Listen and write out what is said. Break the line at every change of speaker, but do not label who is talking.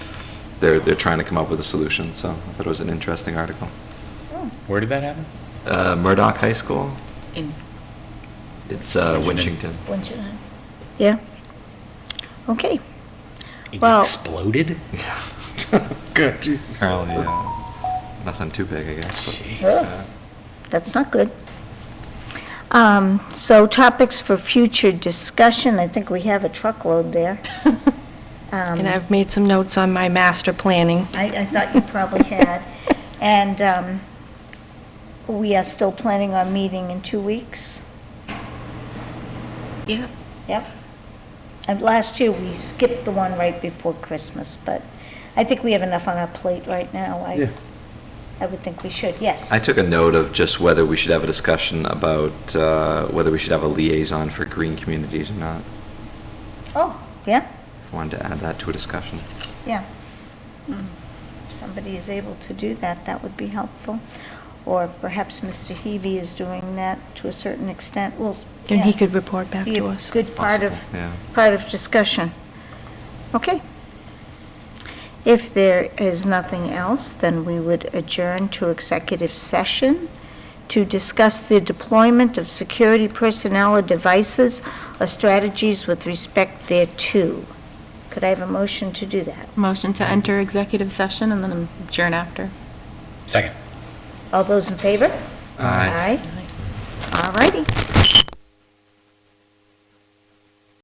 they're, they're trying to come up with a solution, so I thought it was an interesting article.
Where did that happen?
Uh, Murdoch High School,
in
it's uh,
Winchton.
Winchington.
Wouldn't you know? Yeah. Okay. Well-
It exploded?
Yeah.
God, Jesus.
Apparently, uh, nothing too big, I guess, but.
Jeez.
uh,
That's not good. Um, So topics for future discussion, I think we have a truckload there. Um,
And I've made some notes on my master planning.
I, I thought you probably had. And um, we are still planning on meeting in two weeks.
yeah.
Yep. And last year, we skipped the one right before Christmas, but I think we have enough on our plate right now. I, I would think we should, yes.
I took a note of just whether we should have a discussion about uh, whether we should have a liaison for green communities or not.
Oh, yeah,
Wanted to add that to a discussion.
yeah.
Mm-hmm.
If somebody is able to do that, that would be helpful. Or perhaps Mr. Heavy is doing that to a certain extent. Well, s-
And he
yeah.
could report back
be
to
a
us.
good part of,
Possible, yeah.
part of discussion. Okay. If there is nothing else, then we would adjourn to executive session to discuss the deployment of security personnel or devices or strategies with respect thereto. Could I have a motion to do that?
Motion to enter executive session and then adjourn after.
Second.
All those in favor?
Aye.
Aye. All righty.